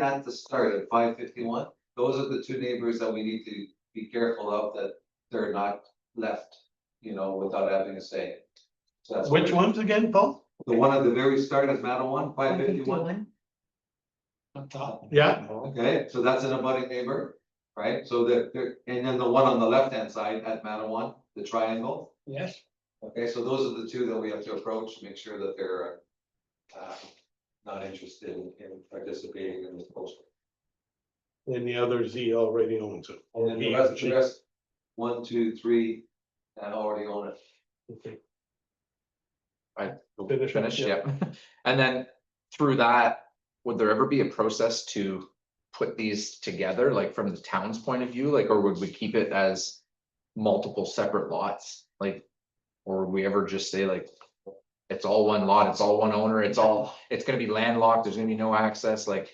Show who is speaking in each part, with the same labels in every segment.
Speaker 1: at the start at five fifty-one, those are the two neighbors that we need to be careful of, that they're not left, you know, without having a say. So that's
Speaker 2: Which ones again, Paul?
Speaker 1: the one at the very start is Madawan, five fifty-one,
Speaker 2: Yeah,
Speaker 1: okay, so that's an abutting neighbor, right? So that, there- and then the one on the left-hand side at Madawan, the triangle,
Speaker 2: yes.
Speaker 1: okay, so those are the two that we have to approach, make sure that they're uh, not interested in participating in this culture.
Speaker 2: And the others he already owns it. E
Speaker 1: And then the
Speaker 2: He-
Speaker 1: rest,
Speaker 2: she-
Speaker 1: the rest, one, two, three, I already own it.
Speaker 2: okay.
Speaker 3: We'll
Speaker 2: Finish up,
Speaker 3: Finish,
Speaker 2: yeah.
Speaker 3: yeah. And then through that, would there ever be a process to put these together, like from the town's point of view, like, or would we keep it as multiple separate lots, like? Or would we ever just say like, it's all one lot, it's all one owner, it's all, it's gonna be landlocked, there's gonna be no access, like,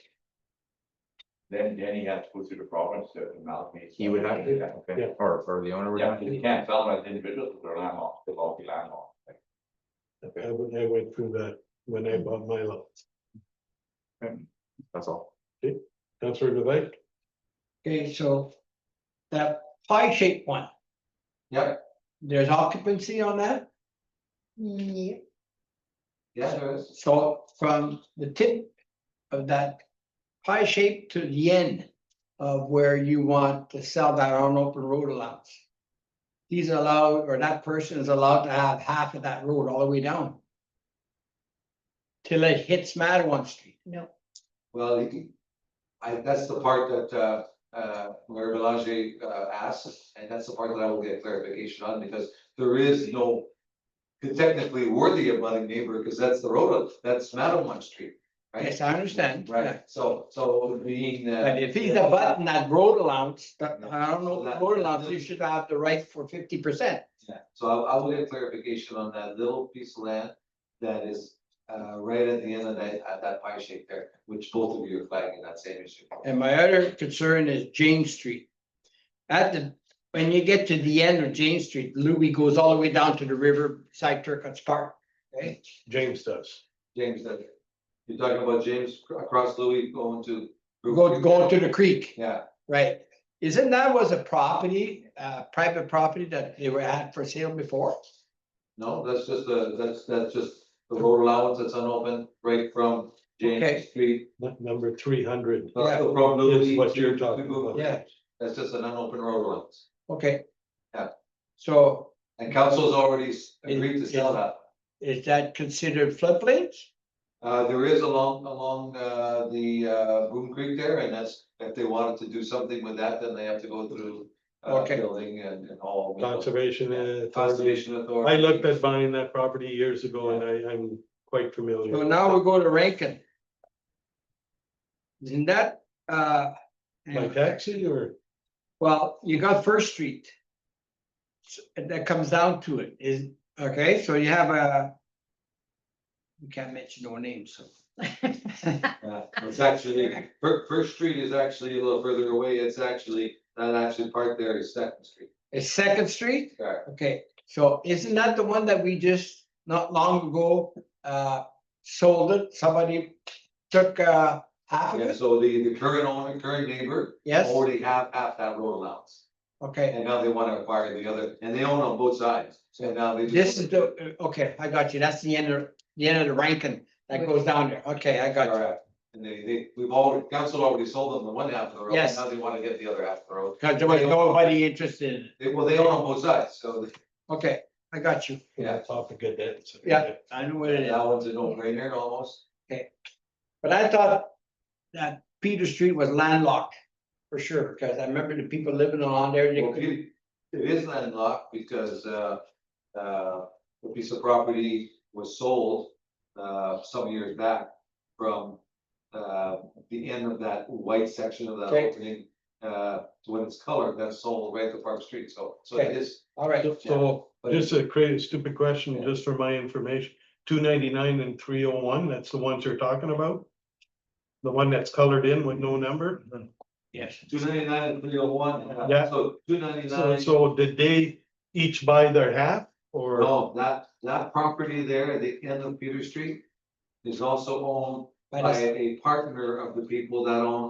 Speaker 4: Then, then he has to go through the province to amalgamate.
Speaker 3: he would have,
Speaker 4: Yeah,
Speaker 3: okay, or, or the owner would
Speaker 4: Yeah,
Speaker 3: have.
Speaker 4: because you can't sell them as individuals, because they're landlocked, they'll all be landlocked.
Speaker 2: I went, I went through that when I bought my lot.
Speaker 3: That's all.
Speaker 2: Councillor Devine,
Speaker 5: Okay, so that pie shaped one,
Speaker 1: Yep,
Speaker 5: there's occupancy on that,
Speaker 6: Yeah,
Speaker 1: yeah, there is.
Speaker 5: so from the tip of that pie shape to the end of where you want to sell that on open road allowance. He's allowed, or that person is allowed to have half of that road all the way down. Till it hits Madawan Street.
Speaker 6: no,
Speaker 1: Well, he- I, that's the part that, uh, uh, Mayor Belanger, uh, asked, and that's the part that I will get clarification on, because there is no technically worthy of budding neighbor, because that's the road, that's Madawan Street, right?
Speaker 5: Yes, I understand.
Speaker 1: Right, so, so being,
Speaker 5: But
Speaker 1: uh,
Speaker 5: if he's a button that road allowance, that, I don't know,
Speaker 1: That-
Speaker 5: road allowance, you should have the right for fifty percent.
Speaker 1: yeah, so I, I will get clarification on that little piece of land that is, uh, right at the end of that, at that pie shape there, which both of you are flagging that same issue.
Speaker 5: And my other concern is James Street. At the, when you get to the end of James Street, Louis goes all the way down to the river side Turcots Park. Okay,
Speaker 2: James does.
Speaker 1: James, that, you're talking about James cr- across Louis going to.
Speaker 5: go, go to the creek,
Speaker 1: Yeah,
Speaker 5: right? Isn't that was a property, uh, private property that they were at for sale before?
Speaker 1: no, that's just the, that's, that's just the road allowance that's unopened, right from
Speaker 5: Okay.
Speaker 1: James Street.
Speaker 2: N- Number three hundred.
Speaker 1: uh, From Louis.
Speaker 2: Is what you're
Speaker 1: to-
Speaker 2: talking
Speaker 1: to-
Speaker 2: about.
Speaker 5: Yeah.
Speaker 1: That's just an unopened road allowance,
Speaker 5: Okay.
Speaker 1: Yeah.
Speaker 5: So
Speaker 1: and council's already s- agreed to
Speaker 5: It-
Speaker 1: sell
Speaker 5: it-
Speaker 1: that.
Speaker 5: is that considered floodplains?
Speaker 1: Uh, there is along, along, uh, the, uh, Boom Creek there, and that's, if they wanted to do something with that, then they have to go through. Uh,
Speaker 5: Okay.
Speaker 1: building and, and all. with the
Speaker 2: Conservation. uh,
Speaker 1: Conservation authority.
Speaker 2: I looked at buying that property years ago and I, I'm quite familiar.
Speaker 5: So now we go to Rankin. Isn't that, uh?
Speaker 2: By taxi or?
Speaker 5: Well, you got First Street. S- and That comes down to it, is, okay, so you have a. We can't mention no names, so.
Speaker 1: Yeah, it's actually, First, First Street is actually a little further away, it's actually, that actually part there is Second Street.
Speaker 5: Is Second Street,
Speaker 1: Correct.
Speaker 5: okay, so isn't that the one that we just, not long ago, uh, sold it, somebody took, uh, half of
Speaker 1: Yeah,
Speaker 5: it?
Speaker 1: so the, the current owner, current neighbor
Speaker 5: Yes,
Speaker 1: already have half that road allowance,
Speaker 5: okay,
Speaker 1: and now they wanna acquire the other, and they own on both sides, so now they. just-
Speaker 5: this is the, uh, okay, I got you, that's the end of, the end of the ranking, that goes down there, okay, I got you.
Speaker 1: Correct. And they, they, we've all, council already sold them the one half of the road,
Speaker 5: Yes.
Speaker 1: now they wanna get the other half of the road,
Speaker 5: Cause there was nobody interested in it,
Speaker 1: they, well, they own on both sides, so they-
Speaker 5: okay, I got you.
Speaker 1: Yeah.
Speaker 2: Topic of that. so-
Speaker 5: Yeah. I know what it is,
Speaker 1: that one's a no-brainer almost.
Speaker 5: but I thought that Peter Street was landlocked for sure, because I remember the people living along there. they
Speaker 1: Well,
Speaker 5: couldn't-
Speaker 1: It it is landlocked because uh, uh, the piece of property was sold uh, some years back from uh, the end of that white section of that
Speaker 5: Okay.
Speaker 1: opening uh, to when it's colored, that's sold right to Park Street, so, so it
Speaker 5: Okay.
Speaker 1: is.
Speaker 5: All right,
Speaker 2: So-
Speaker 5: so,
Speaker 1: but
Speaker 2: Just a crazy stupid question,
Speaker 1: Yeah.
Speaker 2: just for my information, two ninety-nine and three oh one, that's the ones you're talking about? The one that's colored in with no number?
Speaker 5: yes,
Speaker 1: Two ninety-nine and three oh one.
Speaker 2: Yeah.
Speaker 1: So two
Speaker 2: So,
Speaker 1: ninety-nine,
Speaker 2: so did they each buy their half or?
Speaker 1: no, that, that property there at the end of Peter Street is also owned
Speaker 5: by
Speaker 1: by
Speaker 5: the
Speaker 1: a partner of the people that own